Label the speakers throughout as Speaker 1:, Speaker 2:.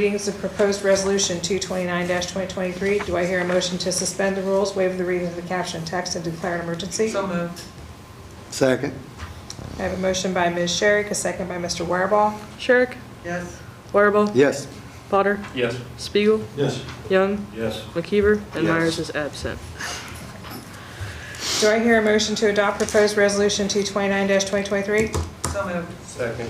Speaker 1: Readings of proposed resolution 229-2023. Do I hear a motion to suspend the rules, waive the reading of the caption and text, and declare an emergency?
Speaker 2: So moved.
Speaker 3: Second.
Speaker 1: I have a motion by Ms. Sherrick, a second by Mr. Wireball.
Speaker 4: Sherrick?
Speaker 2: Yes.
Speaker 4: Wireball?
Speaker 3: Yes.
Speaker 4: Potter?
Speaker 5: Yes.
Speaker 4: Spiegel?
Speaker 5: Yes.
Speaker 4: Young?
Speaker 5: Yes.
Speaker 4: McKeever?
Speaker 3: Yes.
Speaker 4: And Myers is absent.
Speaker 1: Do I hear a motion to adopt proposed resolution 229-2023?
Speaker 2: So moved.
Speaker 5: Second.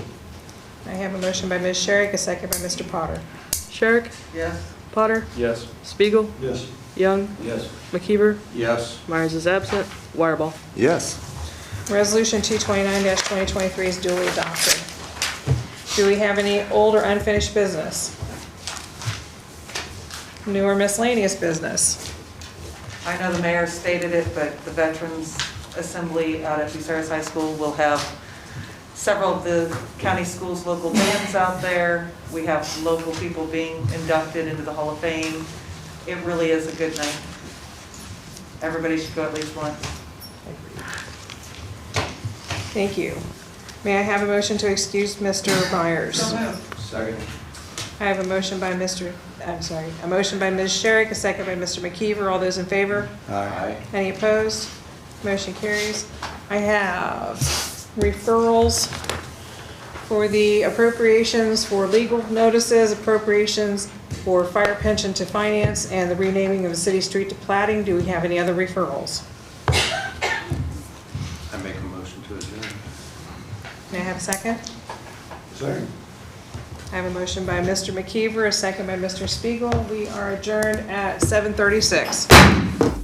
Speaker 1: I have a motion by Ms. Sherrick, a second by Mr. Potter.
Speaker 4: Sherrick?
Speaker 2: Yes.
Speaker 4: Potter?
Speaker 5: Yes.
Speaker 4: Spiegel?
Speaker 5: Yes.
Speaker 4: Young?
Speaker 5: Yes.
Speaker 4: McKeever?
Speaker 5: Yes.
Speaker 4: Myers is absent. Wireball?
Speaker 3: Yes.
Speaker 1: Resolution 229-2023 is duly adopted. Do we have any old or unfinished business? New or miscellaneous business?
Speaker 2: I know the mayor stated it, but the Veterans Assembly out at Bucyrus High School will have several of the county schools' local bands out there. We have local people being inducted into the Hall of Fame. It really is a good night. Everybody should go at least once.
Speaker 1: Thank you. May I have a motion to excuse Mr. Myers?
Speaker 2: moved.
Speaker 5: Second.
Speaker 1: I have a motion by Mr., I'm sorry, a motion by Ms. Sherrick, a second by Mr. McKeever. All those in favor?
Speaker 3: Aye.
Speaker 1: Any opposed? Motion carries. I have referrals for the appropriations for legal notices, appropriations for fire pension to finance, and the renaming of a city street to plating. Do we have any other referrals?
Speaker 3: I make a motion to adjourn.
Speaker 1: May I have a second?
Speaker 3: Second.
Speaker 1: I have a motion by Mr. McKeever, a second by Mr. Spiegel. We are adjourned at 7:36.